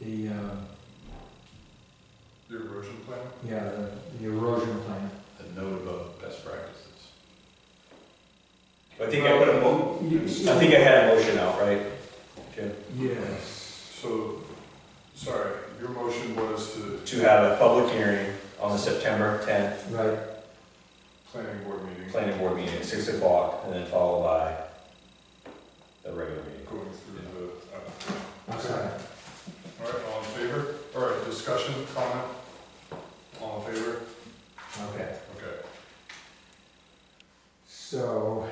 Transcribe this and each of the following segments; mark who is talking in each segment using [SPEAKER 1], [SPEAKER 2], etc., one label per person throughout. [SPEAKER 1] uh,
[SPEAKER 2] plan?
[SPEAKER 1] Yeah, the, the erosion plan.
[SPEAKER 3] a note about best practices. I think I put a mo, I think I had a motion out, right? Jim?
[SPEAKER 1] Yes.
[SPEAKER 2] So, sorry, your motion was to
[SPEAKER 3] To have a public hearing on the September tenth
[SPEAKER 1] Right,
[SPEAKER 2] planning board meeting,
[SPEAKER 3] planning board meeting at six o'clock, and then followed by the regular meeting.
[SPEAKER 2] going through the, application.
[SPEAKER 1] I'm sorry.
[SPEAKER 2] all right, all in favor? All right, discussion, comment? All in favor?
[SPEAKER 1] Okay.
[SPEAKER 2] Okay.
[SPEAKER 1] So,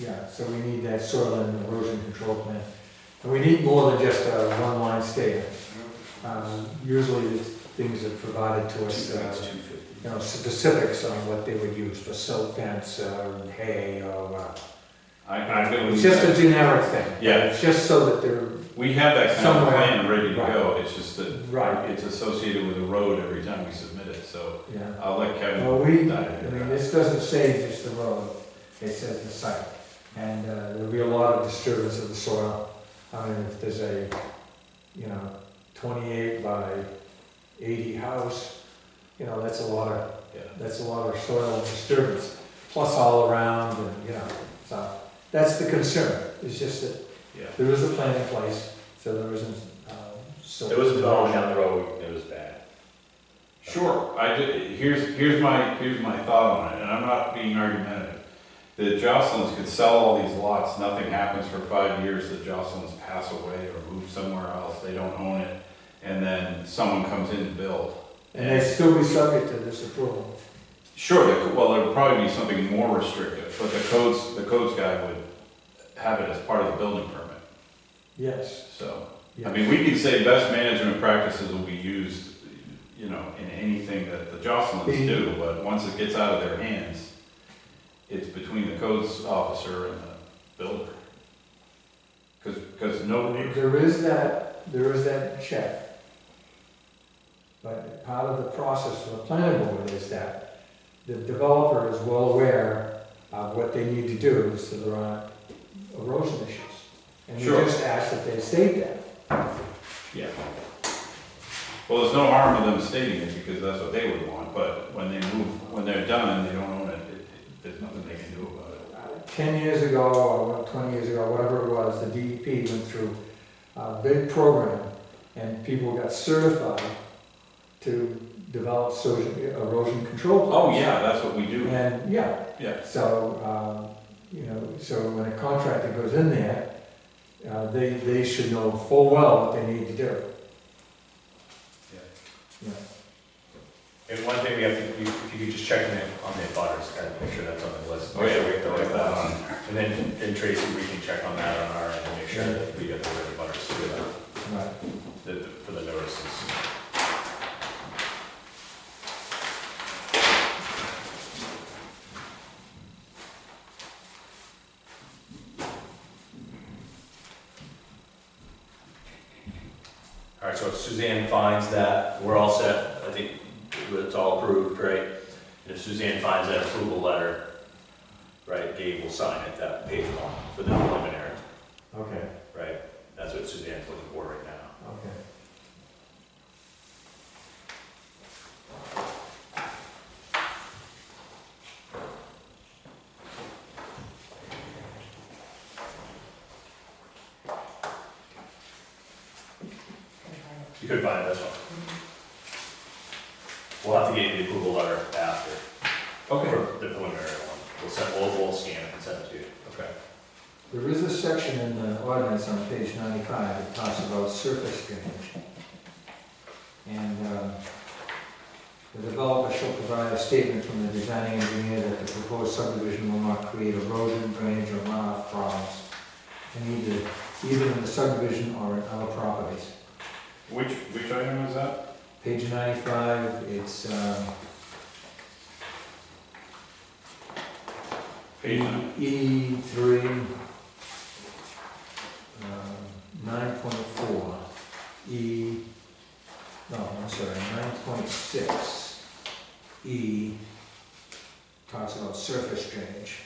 [SPEAKER 1] yeah, so we need that soil and erosion control plan. And we need more than just a one-line statement. Um, Usually these things are provided to us, uh,
[SPEAKER 3] two
[SPEAKER 1] you
[SPEAKER 3] fifty.
[SPEAKER 1] know, specifics on what they would use for silt fence or hay or, uh,
[SPEAKER 4] I, I
[SPEAKER 1] it's
[SPEAKER 4] believe
[SPEAKER 1] just a
[SPEAKER 4] that,
[SPEAKER 1] generic thing.
[SPEAKER 4] Yeah.
[SPEAKER 1] It's just so that they're
[SPEAKER 4] we have that kind of
[SPEAKER 1] Somewhere.
[SPEAKER 4] plan ready to go, it's just that
[SPEAKER 1] Right.
[SPEAKER 4] it's associated with a road every time we submit it, so
[SPEAKER 1] Yeah,
[SPEAKER 4] I'll let Kevin
[SPEAKER 1] well, we,
[SPEAKER 4] dive
[SPEAKER 1] I
[SPEAKER 4] into
[SPEAKER 1] mean,
[SPEAKER 4] that.
[SPEAKER 1] this doesn't say just the road, it says the site. And uh, there'll be a lot of disturbance of the soil. I mean, if there's a, you know, twenty-eight by eighty house, you know, that's a lot of,
[SPEAKER 4] Yeah.
[SPEAKER 1] that's a lot of soil disturbance. Plus all around and, you know, so that's the concern. It's just that
[SPEAKER 4] Yeah.
[SPEAKER 1] there is a plan in place, so there isn't, uh, so.
[SPEAKER 3] There was a problem down the road, it was bad.
[SPEAKER 4] Sure, I did, here's, here's my, here's my thought on it, and I'm not being argumentative. The Jocelyn's could sell all these lots, nothing happens for five years, the Jocelyn's pass away or move somewhere else, they don't own it, and then someone comes in to build.
[SPEAKER 1] And they'd still be subject to this approval.
[SPEAKER 4] Sure, the co- well, it would probably be something more restrictive, but the codes, the codes guy would have it as part of the building permit,
[SPEAKER 1] Yes.
[SPEAKER 4] so.
[SPEAKER 1] yes.
[SPEAKER 4] I mean, we could say best management practices will be used, you know, in anything that the Jocelyn's do, but once it gets out of their hands, it's between the codes officer and the builder. Cause, cause nobody,
[SPEAKER 1] There is that, there is that check. But part of the process for the planning board is that the developer is well aware of what they need to do so there aren't erosion issues. And
[SPEAKER 4] Sure.
[SPEAKER 1] we just ask that they state that.
[SPEAKER 4] yeah. Well, there's no harm in them stating it, because that's what they would want, but when they move, when they're done, they don't own it, it, it- there's nothing they can do about it.
[SPEAKER 1] Uh, Ten years ago, or what, twenty years ago, whatever it was, the DEP went through a big program and people got certified to develop soci- erosion control. plans.
[SPEAKER 4] Oh, yeah, that's what we do,
[SPEAKER 1] And, yeah.
[SPEAKER 4] Yeah.
[SPEAKER 1] So, um, you know, so when a contractor goes in there, uh, they, they should know full well what they need to do.
[SPEAKER 3] And one thing we have to, you- if you could just check in on the butters, kind of make sure that's on the list.
[SPEAKER 4] Oh,
[SPEAKER 3] Make
[SPEAKER 4] yeah.
[SPEAKER 3] sure we get the right ones. And then, then Tracy, we can check on that on our end and make sure that we get the right butters for the-
[SPEAKER 1] Right.
[SPEAKER 3] the, for the notices. All right, so if Suzanne finds that, we're all set, I think it's all approved, right? And if Suzanne finds that approval letter, right, Gabe will sign it, that page one for the preliminary,
[SPEAKER 1] Okay,
[SPEAKER 3] right? That's what Suzanne's looking for right now.
[SPEAKER 1] okay.
[SPEAKER 3] You could find this one. We'll have to get you the approval letter after,
[SPEAKER 4] okay.
[SPEAKER 3] for the preliminary one. We'll send, we'll, we'll scan it and send it to you.
[SPEAKER 4] Okay.
[SPEAKER 1] There is a section in the ordinance on page ninety-five that talks about surface drainage. And, um, the developer shall provide a statement from the designing engineer that the proposed subdivision will not create erosion, drainage, or runoff problems in either, either in the subdivision or in other properties.
[SPEAKER 4] Which, which item is that?
[SPEAKER 1] Page ninety-five, it's, um,
[SPEAKER 4] Page nine.
[SPEAKER 1] E three, um, uh, nine point four, E, no, I'm sorry, nine point six, E, talks about surface drainage.